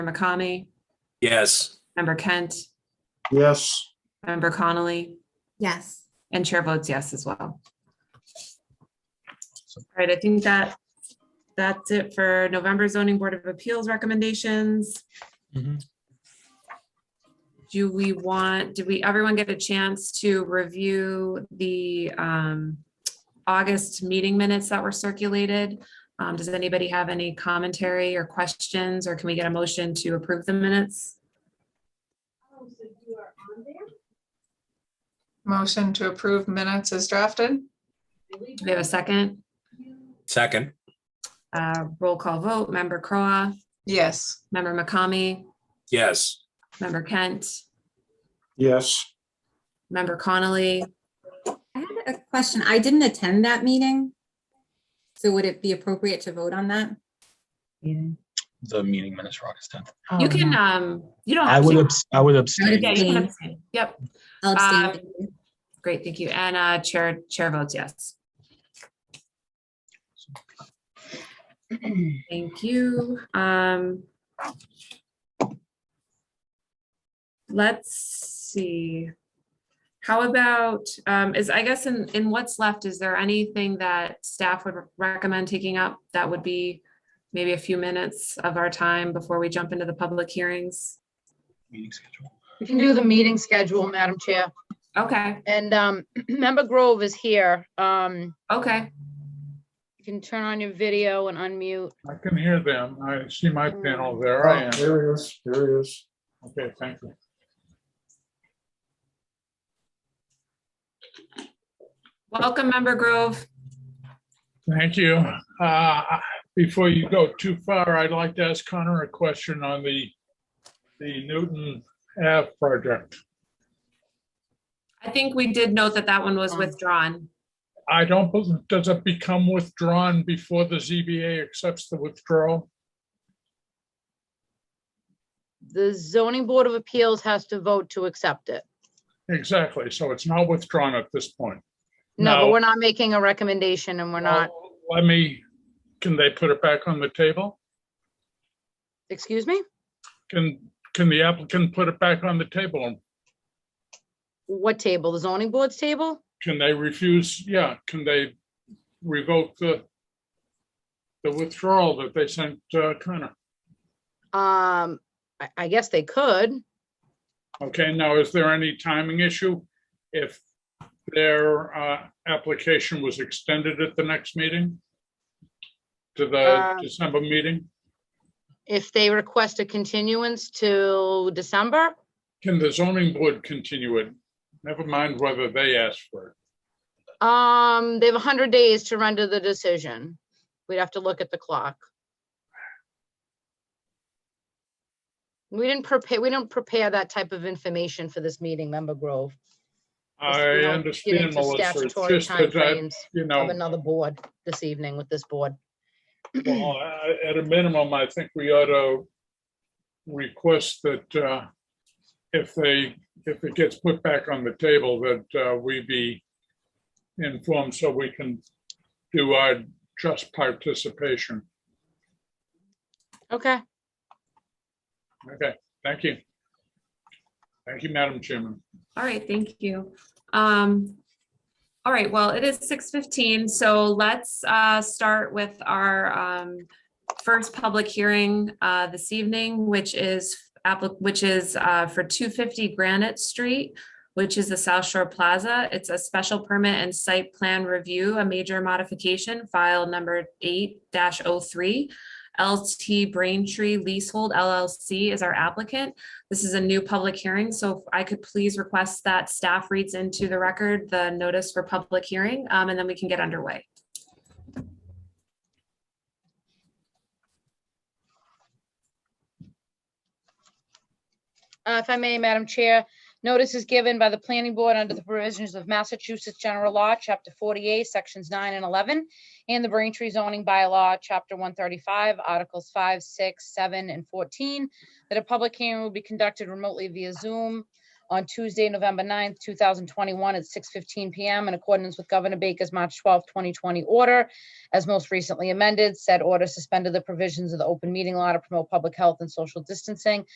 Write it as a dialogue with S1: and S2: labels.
S1: McCamey,
S2: Yes.
S1: Member Kent,
S3: Yes.
S1: Member Connolly,
S4: Yes.
S1: and Chair votes yes as well. All right, I think that, that's it for November Zoning Board of Appeals recommendations.
S2: Mhm.
S1: Do we want, did we, everyone get a chance to review the um, August meeting minutes that were circulated? Um, Does anybody have any commentary or questions, or can we get a motion to approve the minutes?
S5: Motion to approve minutes is drafted?
S1: Do we have a second?
S2: Second.
S1: Uh, Roll call vote, Member Croa,
S5: Yes.
S1: Member McCamey,
S2: Yes.
S1: Member Kent,
S3: Yes.
S1: Member Connolly.
S4: I had a question. I didn't attend that meeting. So would it be appropriate to vote on that?
S1: You
S6: the meeting minutes for August 10th.
S1: can, um, you don't.
S6: Oh, I
S1: have
S6: would,
S1: to.
S6: abs- I would abstain.
S1: Yeah, you can
S4: abstain.
S1: abstain. Yep,
S4: I'll abstain.
S1: great, thank you. And uh, Chair, Chair votes yes. Thank you. Um, Let's see. How about, um, is, I guess in, in what's left, is there anything that staff would recommend taking up that would be maybe a few minutes of our time before we jump into the public hearings?
S6: Meeting schedule.
S7: We can do the meeting schedule, Madam Chair.
S1: Okay,
S7: And um, Member Grove is here. Um,
S1: okay.
S7: You can turn on your video and unmute.
S8: I can hear them. I see my
S7: Hmm.
S8: panel. There I am.
S3: Oh, There he is. There he is.
S8: Okay, thank you.
S1: Welcome, Member Grove.
S8: Thank you. Uh, Before you go too far, I'd like to ask Connor a question on the, the Newton Ave project.
S1: I think we did note that that one was withdrawn.
S8: I don't, bel- does it become withdrawn before the ZBA accepts the withdrawal?
S7: The zoning board of appeals has to vote to accept it.
S8: Exactly. So it's not withdrawn at this point.
S7: No, but
S8: No.
S7: we're not making a recommendation and we're not,
S8: oh, Let me, can they put it back on the table?
S7: excuse me?
S8: Can, can the applicant put it back on the table?
S7: What table? The zoning board's table?
S8: Can they refuse, yeah, can they revoke the the withdrawal that they sent uh, Connor?
S7: Um, I, I guess they could.
S8: Okay, now is there any timing issue if their uh, application was extended at the next meeting? To the
S7: Uh,
S8: December meeting?
S7: If they request a continuance till December,
S8: Can the zoning board continue it? Never mind whether they asked for it.
S7: um, they have hundred days to render the decision. We'd have to look at the clock. We didn't prepare, we don't prepare that type of information for this meeting, Member Grove.
S8: I
S7: We don't get
S8: understand,
S7: into
S8: Melissa, it's
S7: Statutory
S8: just that, I-
S7: timeframes
S8: you know.
S7: of another board this evening with this board.
S8: Well, I- at a minimum, I think we ought to request that uh, if they, if it gets put back on the table, that uh, we be informed so we can do our just participation.
S7: Okay,
S8: Okay, thank you. Thank you, Madam Chairman.
S1: All right, thank you. Um, all right, well, it is six fifteen, so let's uh start with our um first public hearing uh this evening, which is applic, which is uh for two fifty Granite Street, which is the South Shore Plaza. It's a special permit and site plan review, a major modification, file number eight oh 3 LT Braintree Leasehold LLC is our applicant. This is a new public hearing, so if I could please request that staff reads into the record the notice for public hearing, um, and then we can get underway.
S7: Uh, if I may, Madam Chair, notice is given by the planning board under the provisions of Massachusetts General Law, Chapter 48, Sections 9 and 11, and the Braintree zoning bylaw, Chapter 135, Articles 5, 6, 7, and 14, that a public hearing will be conducted remotely via Zoom on Tuesday, November 9th, 2021 at 6:15 PM in accordance with Governor Baker's March 12, 2020 order. As most recently amended, said order suspended the provisions of the open meeting law to promote public health and social distancing